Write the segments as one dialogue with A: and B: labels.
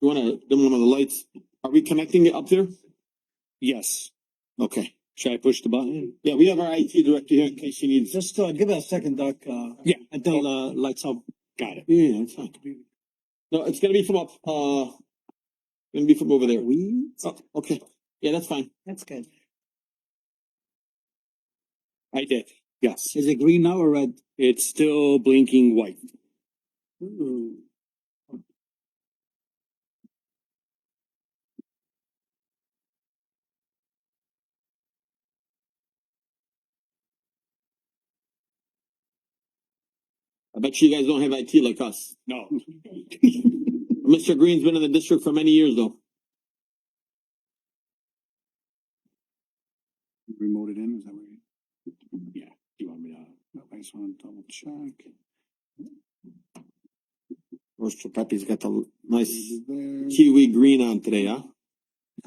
A: You wanna dim one of the lights? Are we connecting it up there? Yes. Okay. Should I push the button? Yeah, we have our IT director here in case you need.
B: Just uh, give it a second, Doc, uh,
A: Yeah.
B: until uh, lights up.
A: Got it. Yeah, it's fine. No, it's gonna be from up, uh, gonna be from over there.
B: We?
A: Oh, okay. Yeah, that's fine.
B: That's good.
A: I did. Yes.
B: Is it green now or red?
A: It's still blinking white.
B: Ooh.
A: I bet you guys don't have IT like us. No. Mr. Green's been in the district for many years though.
C: Remoted in, is that what you?
A: Yeah. You want me to?
C: I just wanna double check.
A: Mr. Pepe's got the nice
C: There.
A: kiwi green on today, huh?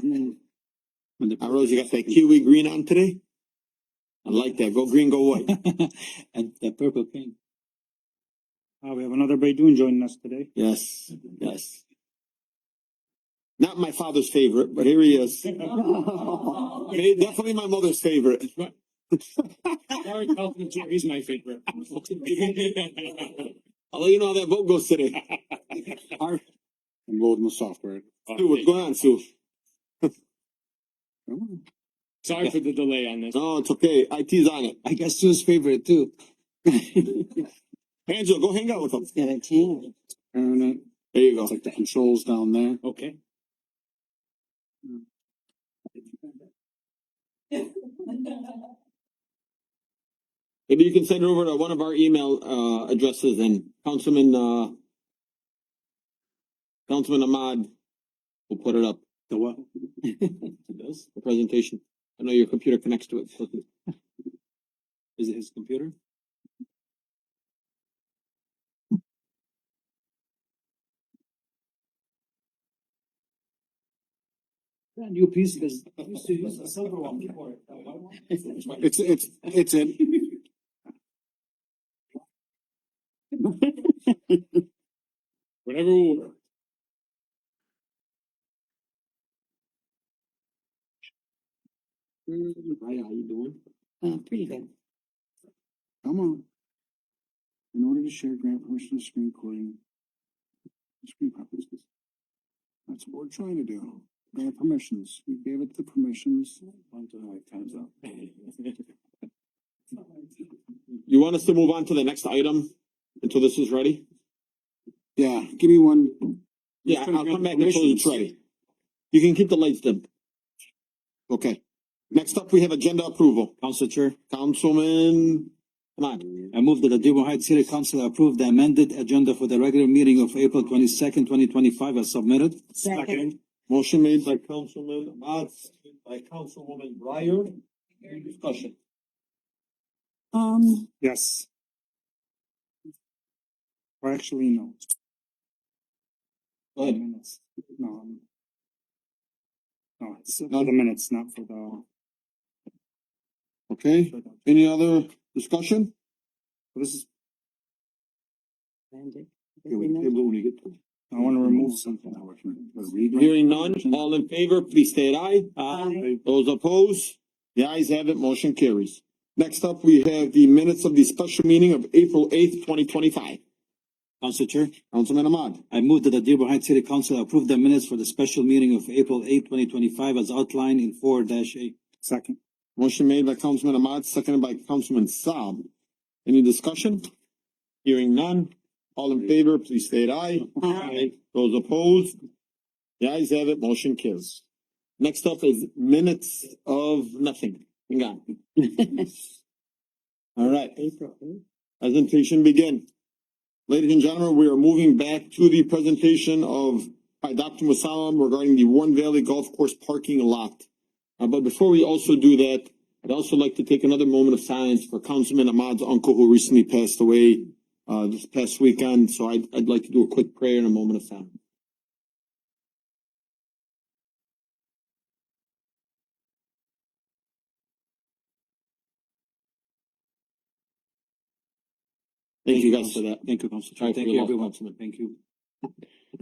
A: I Rose, you got that kiwi green on today? I like that. Go green, go white.
B: And the purple pink.
C: Ah,
D: Uh, we have another Baidoon joining us today.
A: Yes, yes. Not my father's favorite, but here he is. Eh, Definitely my mother's favorite.
D: Sorry, Elton, Jerry's my favorite.
A: I'll let you know how that vote goes today.
C: Enrolled in the software.
A: Sue, what's going on, Sue?
C: Oh,
D: Sorry for the delay on this.
A: No, Oh, it's okay. IT's on it.
B: I guess Sue's favorite too.
A: Angela, go hang out with them.
B: Seventeen.
C: Turn it,
A: There you go.
C: uh, it's like the controls down there.
D: Okay.
A: Maybe you can send it over to one of our email, uh, addresses and Councilman, uh, Councilman Ahmad will put it up.
B: The what?
A: It does, the presentation. I know your computer connects to it. doesn't it? Is it his computer?
B: That new piece because I used to use the silver one before. the white one.
C: It's, it's, it's in.
D: Whatever will work.
C: Mm,
A: Hi, how you doing?
E: Uh, pretty good.
C: Come on. In order to share grant permission screen recording. Screen copies. That's what we're trying to do. Grant permissions. We gave it the permissions. One, two, three, time's up.
A: You want us to move on to the next item until this is ready?
C: Yeah, give me one.
A: Yeah, I'll come back until it's ready. You can keep the lights dim. Okay. Next up, we have agenda approval.
B: Council Chair,
A: Councilman, come on.
B: I move that the Dearborn Heights City Council approve the amended agenda for the regular meeting of April twenty-second, twenty twenty-five as submitted.
E: Second.
A: Motion made by Councilman Ahmad, seconded by Councilwoman Breyer. Any discussion?
E: Um,
D: Yes. Or actually, no.
A: Go
D: The
A: ahead.
D: minutes. No. um, No, it's not the minutes, not for the,
A: Okay,
D: for the,
A: any other discussion?
D: this is,
E: amended.
C: Yeah, we can table it when we get to it.
D: I wanna remove something.
A: Hearing none, all in favor, please state aye.
E: Aye.
A: Those opposed, the ayes have it, motion carries. Next up, we have the minutes of the special meeting of April eighth, twenty twenty-five.
B: Council Chair,
A: Councilman Ahmad,
B: I move that the Dearborn Heights City Council approve the minutes for the special meeting of April eighth, twenty twenty-five as outlined in four dash eight.
D: Second.
A: motion made by Councilman Ahmad, seconded by Councilman Saab. Any discussion? Hearing none, all in favor, please state aye.
E: Aye.
A: Those opposed, the ayes have it, motion carries. Next up is minutes of nothing. Hang on. All right.
E: April eighth.
A: Presentation begin. Ladies and gentlemen, we are moving back to the presentation of by Dr. Musalam regarding the Warren Valley Golf Course parking lot. Uh, but before we also do that, I'd also like to take another moment of silence for Councilman Ahmad's uncle who recently passed away uh, this past weekend. So I'd, I'd like to do a quick prayer and a moment of silence. Thank you guys for that.
B: Thank you, Council
A: All
B: Chair.
A: right,
B: Thank
A: we
B: you,
A: lost
B: everyone.
A: Councilman.
B: Thank you.